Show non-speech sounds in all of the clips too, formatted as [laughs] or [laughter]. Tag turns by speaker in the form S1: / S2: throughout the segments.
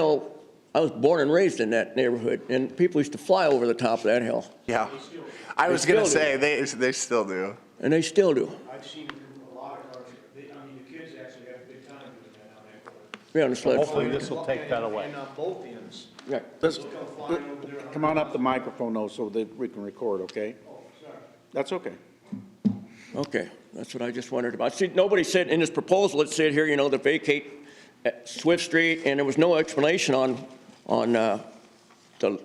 S1: know, I was born and raised in that neighborhood, and people used to fly over the top of that hill,
S2: Yeah. I was
S1: They
S2: gonna
S1: still do.
S2: say, they, they still do.
S1: and they still do.
S3: I've seen a lot of cars, they, I mean, the kids actually have a good time doing that on that road.
S1: Yeah, on the sled.
S4: Hopefully this will take that away.
S3: And on both ends.
S1: Yeah.
S4: This-
S3: They'll come flying over there.
S4: Come on up the microphone though, so that we can record, okay?
S3: Oh, sorry.
S4: That's okay.
S1: Okay, that's what I just wondered about. See, nobody said in this proposal, it said here, you know, to vacate uh, Swift Street, and there was no explanation on, on, uh, the,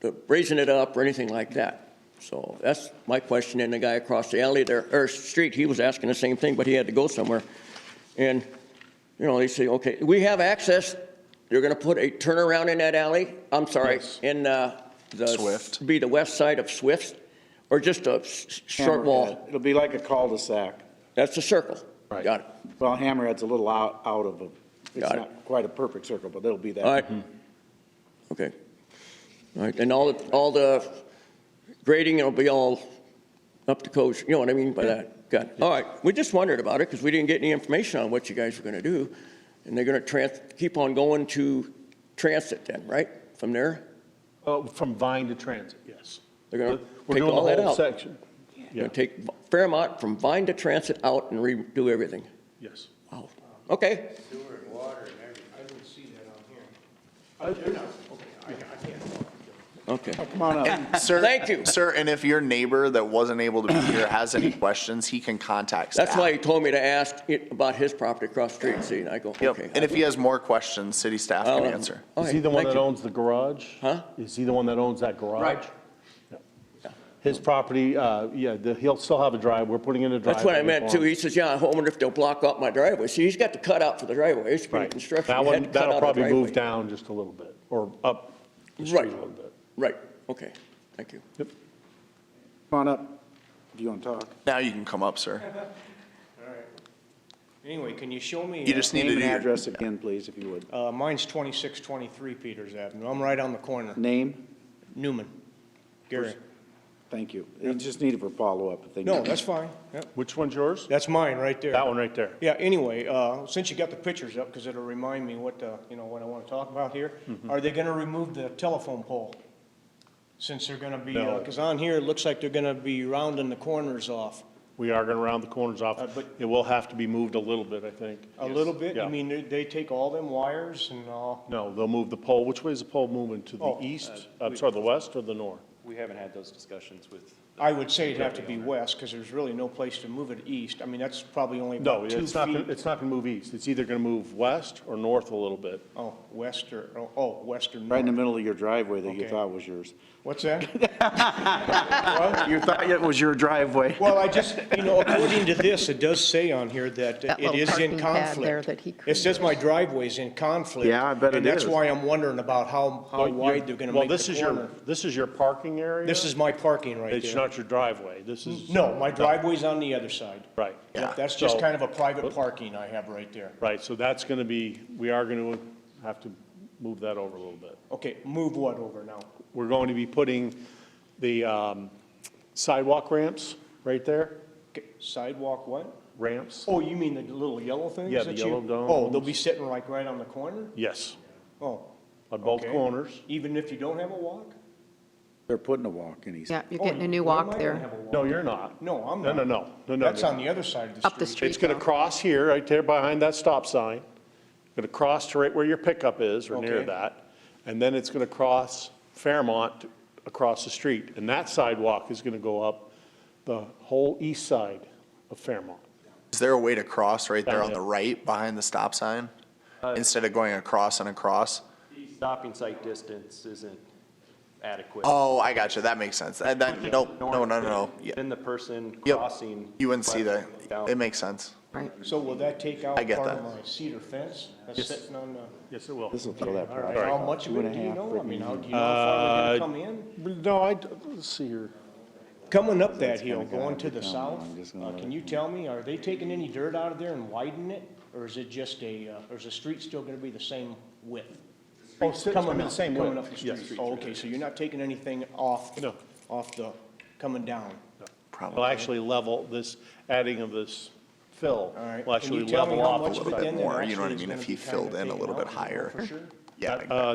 S1: the raising it up or anything like that. So that's my question, and the guy across the alley there, or street, he was asking the same thing, but he had to go somewhere. And, you know, they say, okay, we have access, you're gonna put a turnaround in that alley, I'm sorry, in, uh, the.
S2: Swift.
S1: Be the west side of Swift, or just a s- s- short wall.
S4: Hammerhead. It'll be like a cul-de-sac.
S1: That's a circle. Got it.
S4: Well, Hammerhead's a little out, out of a, it's
S1: Got it.
S4: not quite a perfect circle, but it'll be that.
S1: All right. Okay. All right, and all, the all the grading will be all up to code, you know what I mean by that? Got it. All right, we just wondered about it because we didn't get any information on what you guys were going to do. And they're going to trans, keep on going to transit then, right? From there?
S4: Oh,
S5: Uh, From Vine to Transit, yes.
S1: They're going to
S5: We're
S1: take
S5: doing
S1: all that
S5: the whole
S1: out.
S5: section.
S1: Going to take Fairmont from Vine to Transit out and redo everything.
S5: Yes.
S1: Wow. Okay.
S3: Sewer and water and everything. I didn't see that on here. Oh, they're not, okay, I, I can't.
S1: Okay.
S4: Come on up.
S2: Sir,
S1: Thank you.
S2: Sir, and if your neighbor that wasn't able to be here has any questions, he can contact staff.
S1: That's why he told me to ask it about his property across the street. See, and I go,
S2: Yep,
S1: okay. Um,
S2: and if he has more questions, city staff
S1: I'll-
S2: can answer.
S1: all
S5: Is he
S1: right,
S5: the one
S1: thank
S5: that
S1: you.
S5: owns the garage?
S1: Huh?
S5: Is he the one that owns that garage?
S1: Right.
S5: Yeah. His property, uh, yeah, the- he'll still have a drive, we're putting in a driveway.
S1: That's what I meant
S5: for
S1: too.
S5: him.
S1: He says, yeah, I wonder if they'll block up my driveway. See, he's got the cutout for the driveway. It's been
S5: Right.
S1: construction.
S5: That
S1: He had
S5: one,
S1: to cut out
S5: that'll
S1: the
S5: probably
S1: driveway.
S5: move down just a little bit, or up the street a
S1: Right.
S5: little bit.
S1: Right, okay, thank you.
S5: Yep.
S4: Come on up. If you want to talk.
S2: Now you can come up, sir.
S3: Anyway, can you show me?
S2: You just need
S4: Name
S2: to do
S4: and
S2: your,
S4: address again, please, if you would.
S3: Uh, mine's twenty-six twenty-three Peters Avenue. I'm right on the corner.
S4: Name?
S3: Newman. Gary.
S4: Thank you. You just need it for follow-up if they
S3: No,
S4: need it.
S3: that's fine. Yep.
S5: Which one's yours?
S3: That's mine right there.
S5: That one right there.
S3: Yeah, anyway, uh, since you got the pictures up, because it'll remind me what, uh, you know, what I want to talk about here,
S5: Mm-hmm.
S3: are they going to remove the telephone pole? Since they're going to be,
S5: No.
S3: because on here, it looks like they're going to be rounding the corners off
S5: We are going to round the corners off.
S3: Uh, but-
S5: It will have to be moved a little bit, I think.
S3: a little bit. I
S5: Yeah.
S3: mean, they- they take all them wires and all,
S5: No, they'll move the pole. Which way is the pole moving? To the
S3: Oh,
S5: east, I'm sorry, the west or the north?
S6: We haven't had those discussions with,
S3: I would say it'd have to be west, because there's really no place to move it east. I mean, that's probably only
S5: No,
S3: about two
S5: it's not, gonna-
S3: feet.
S5: it's not going to move east. It's either going to move west or north a little bit.
S3: Oh, west or, oh, oh, west or
S4: Right in the
S3: north.
S4: middle of your driveway that you
S3: Okay.
S4: thought
S1: [laughs]
S4: was yours.
S3: What's that? [laughs]
S4: You thought it was your driveway.
S3: Well, I just, you know, according to this, it does say on here that
S7: That
S3: it
S7: little
S3: is in
S7: parking pad there
S3: conflict.
S7: that he
S3: It says my driveway's in conflict.
S4: Yeah, I bet it
S3: And that's
S4: is.
S3: why I'm wondering about how, how
S5: But you're-
S3: wide Oh, they're gonna
S5: well,
S3: make
S5: this
S3: the
S5: is your-
S3: corner.
S5: This is your parking area?
S3: This is my parking right
S5: It's
S3: there.
S5: not your driveway. This is.
S3: No, my driveway's on the other side.
S5: Right.
S3: Yep, That's just
S5: So-
S3: kind of a private parking I have right there.
S5: Right, so that's going to be, we are going to have to move that over a little bit.
S3: Okay, move what over now?
S5: We're going to be putting the um, sidewalk ramps right there,
S3: Okay, Sidewalk what?
S5: ramps.
S3: Oh, you mean the little yellow things?
S5: Yeah, the
S3: that you-
S5: yellow
S3: Oh, they'll
S5: domes.
S3: be sitting like right on the corner?
S5: Yes,
S3: Oh.
S5: on both
S3: okay.
S5: corners.
S3: Even if you don't have a walk?
S4: They're putting a walk in, he said.
S7: Yeah, you're
S3: Oh,
S7: getting a new
S3: why am I
S7: walk
S3: gonna
S7: there.
S3: have a walk?
S5: No, you're not.
S3: No, I'm
S5: No,
S3: not.
S5: no, no, no, no.
S3: That's
S5: no.
S3: on the other side of the street.
S7: Up the street.
S5: It's going to cross here, right there behind that stop sign. Going to cross to right where your pickup is, or near
S3: Okay.
S5: that. And then it's going to cross Fairmont across the street. And that sidewalk is going to go up the whole east side of Fairmont.
S2: is there a way to cross right there on the right behind the stop sign? Instead of going across and across?
S6: Uh, stopping site distance isn't adequate.
S2: Oh, I got you. That makes sense. That, that, nope, no, no, no, no. Yeah.
S6: Then the person
S2: Yep.
S6: crossing.
S2: You wouldn't see that.
S6: Down.
S2: It makes sense.
S7: Right.
S3: So will that take out
S2: I get
S3: part of
S2: that.
S3: my cedar fence that's sitting on the,
S5: Yes, it will.
S4: This will throw that. product
S3: how
S4: off.
S3: much of
S4: Two
S3: it
S4: and
S3: do
S4: a
S3: you
S4: half
S3: know? I
S4: brick
S3: mean,
S4: in.
S3: how do you know how far they're gonna
S5: Uh,
S3: come in?
S5: No, I, let's see here.
S3: Coming up that hill,
S4: kinda got
S3: going to
S4: under
S3: the
S4: town,
S3: south,
S4: I'm just gonna
S3: uh,
S4: let
S3: can
S4: it
S3: you tell me, are they taking any dirt out of there and widening it? Or is it just a, uh, or is the street still gonna be the same width?
S5: Oh, it's still-
S3: Coming
S5: it's gonna be
S3: up-
S5: the same
S3: Coming
S5: width.
S3: up the
S5: Yes.
S3: street. Oh, okay, so you're not taking anything off,
S5: No.
S3: off the, coming down?
S5: Will actually level this, adding of this fill.
S3: All right.
S5: Will
S3: Can you
S5: actually
S3: tell me
S5: level
S3: how
S5: off
S3: much
S5: a
S3: of
S5: little
S3: it
S5: bit.
S3: then that
S2: more, you know what I
S3: actually is
S2: mean,
S3: gonna
S2: if
S3: be
S2: he
S3: kinda
S2: filled in a
S3: taken
S2: little
S3: out,
S2: bit
S3: do you know
S2: higher.
S3: for sure?
S2: Yeah,
S5: Uh,
S2: I got it.
S5: uh,